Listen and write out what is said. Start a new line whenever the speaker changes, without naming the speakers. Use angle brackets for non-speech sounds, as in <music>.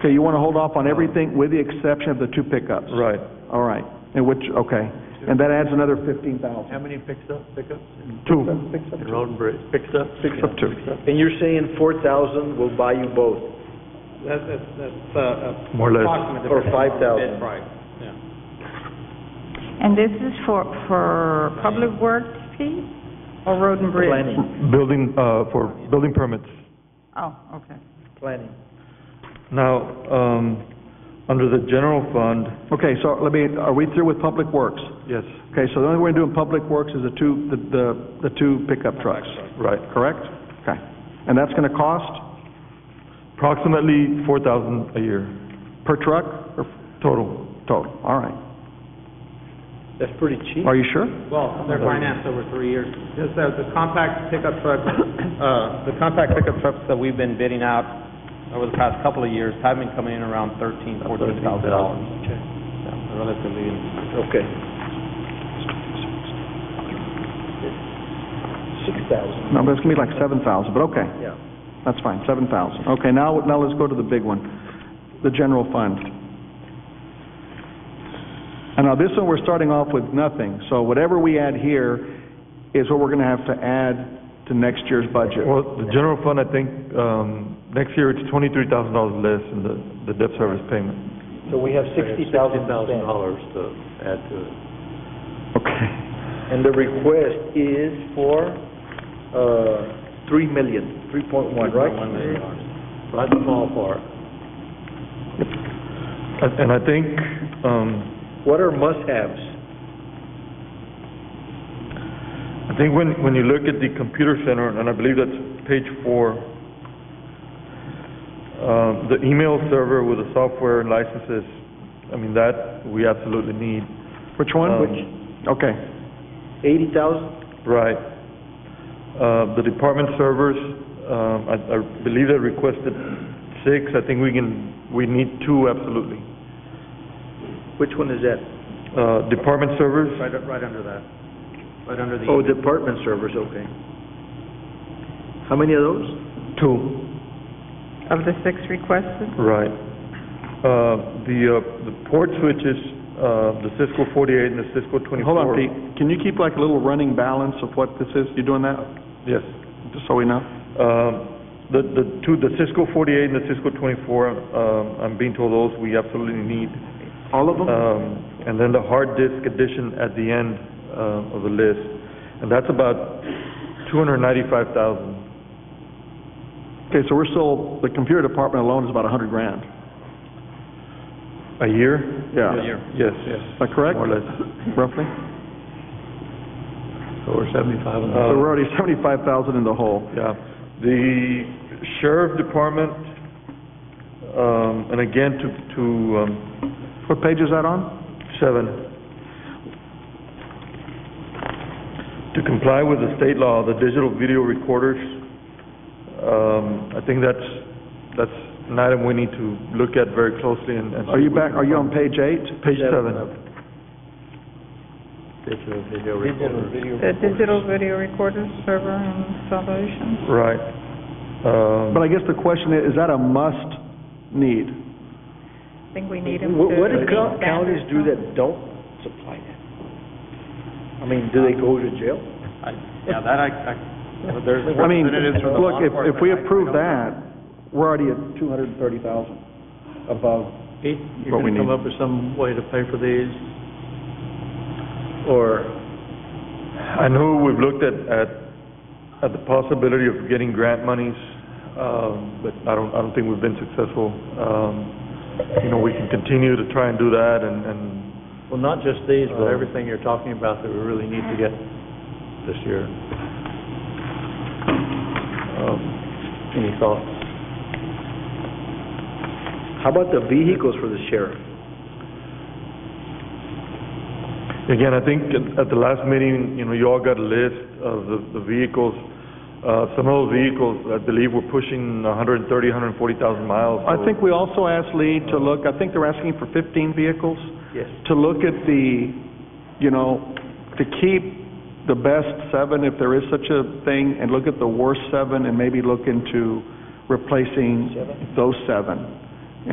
Okay, you want to hold off on everything with the exception of the two pickups?
Right.
All Uh, right, and which, okay, and that adds another fifteen thousand.
How many picks up, pickups?
Two.
In Road and Bridge, picks up? Picks
up two.
And you're saying four thousand will buy you both,
That's, that's- that's, uh,
More or less.
approximate.
Or 5,000.
Bid price, yeah.
And this is for, for public works fee or road and bridge?
Building, uh, for building permits.
Oh, okay.
planning?
Now, um, under the general fund,
Okay, so let me, are we through with Public Works?
yes,
Okay, so the only way we're doing Public Works is the two, the, the, the two pickup trucks,
right.
correct? Okay, and that's going to cost
Approximately four thousand a year,
per truck or
total.
total? All right,
That's pretty cheap.
are you sure?
Well, they're financed over three years. Just that the compact pickup trucks, <coughs> uh, the compact pickup trucks that we've been bidding out over the past couple of years have been coming in around thirteen, fourteen thousand dollars. Yeah, Relatively
Okay. Six thousand,
No, but it's going to be like seven thousand, but okay,
yeah.
that's fine, seven thousand. Okay, now, now let's go to the big one, the general fund. And now, this one, we're starting off with nothing, so whatever we add here is what we're going to have to add to next year's budget.
Well, the general fund, I think, um, next year it's twenty-three thousand dollars less in the, the debt service payment.
So we have sixty thousand to spend.
dollars to add to it.
Okay,
And the request is for, uh, three million, three point one, right?
one million dollars.
Right in the ballpark.
And and I think, um,
What are must-haves?
I think when, when you look at the computer center, and I believe that's page four, um, the email server with the software and licenses, I mean, that we absolutely need.
which one?
Um,
Okay,
Eighty thousand?
Right. Uh, the department servers, um, I, I believe they requested six, I think we can, we need two absolutely.
Which one is that?
Uh, department servers,
Right, right under that, right under the.
Oh, department servers, okay. How many of those?
two.
Of the six requested?
Right. Uh, The uh, the port switches, uh, the Cisco 48 and the Cisco 24.
hold on, Pete, can you keep like a little running balance of what this is? You doing that,
Yes.
just so we know?
Um, The the two, the Cisco 48 and the Cisco 24, um, I'm being told those we absolutely need.
All of them?
Um, And then the hard disk addition at the end uh, of the list, and that's about 295,000.
Okay, so we're still, the computer department alone is about a hundred grand.
A year?
Yeah.
Yes.
Is that correct?
More or less.
Roughly?
So we're seventy-five and.
So Uh, we're already seventy-five thousand in the hole.
Yeah. The sheriff department, um, and again, to, to, um,
What page is that on?
seven, to comply with the state law, the digital video recorders, um, I think that's, that's an item we need to look at very closely and. and see
Are you
if we
back,
can
are you on
find-
page eight?
Page seven.
Digital video recorder.
The digital video recorder server installation?
Right. Um,
But I guess the question is, is that a must need?
I think we need them to...
What, what do
meet
co- counties
standards,
do
huh?
that don't supply that? I mean, do they go to jail?
I- Yeah, that I, I, well, there's
I mean,
representatives from the law
look, if, if we
enforcement, I- I
approve that,
don't-
we're already at two hundred and thirty thousand above.
Pete, you're
What we
gonna come
need.
up with some way to pay for these?
Or,
I know we've looked at, at, at the possibility of getting grant monies, um, but I don't, I don't think we've been successful. Um, you know, we can continue to try and do that and, and,
Well, not just these, but
Uh,
everything you're talking about that we really need to get this year.
um,
Any thoughts?
how about the vehicles for the sheriff?
again, I think at, at the last meeting, you know, you all got a list of the, the vehicles. Uh, some of those vehicles, I believe, were pushing a hundred and thirty, hundred and forty thousand miles.
I
so-
think we also asked Lee to look, I think they're asking for fifteen vehicles,
Yes.
to look at the, you know, to keep the best seven, if there is such a thing, and look at the worst seven, and maybe look into replacing those seven.